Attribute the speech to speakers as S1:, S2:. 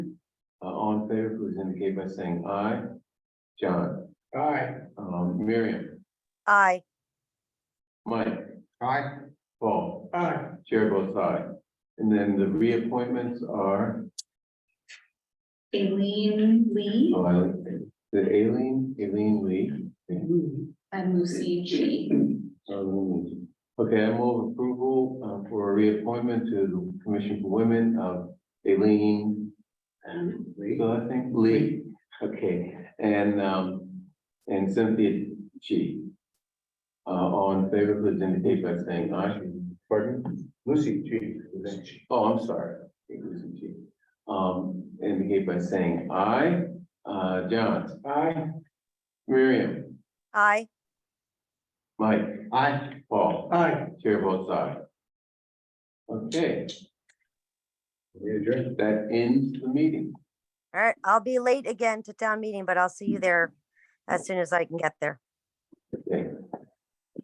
S1: Uh, all in favor, please indicate by saying aye. John,
S2: Aye.
S1: um, Miriam,
S3: aye,
S1: Mike,
S2: Aye.
S1: Paul,
S2: Aye.
S1: chair votes aye. And then the reappointments are,
S4: Aileen Lee
S1: oh, I- the Aileen, Aileen Lee.
S4: and Lucy G.
S1: Um, Okay, I move approval uh, for a reappointment to the Commission for Women of Aileen. And Legal, I think, Lee, okay, and um, and Cynthia G. Uh, all in favor, please indicate by saying aye. Pardon? Lucy G. Oh, I'm sorry, Lucy G. Um, indicate by saying aye. Uh, John,
S2: Aye.
S1: Miriam,
S3: aye,
S1: Mike,
S2: Aye.
S1: Paul.
S2: Aye.
S1: Chair votes aye. Okay. That ends the meeting.
S3: all right, I'll be late again to town meeting, but I'll see you there as soon as I can get there.
S1: Okay.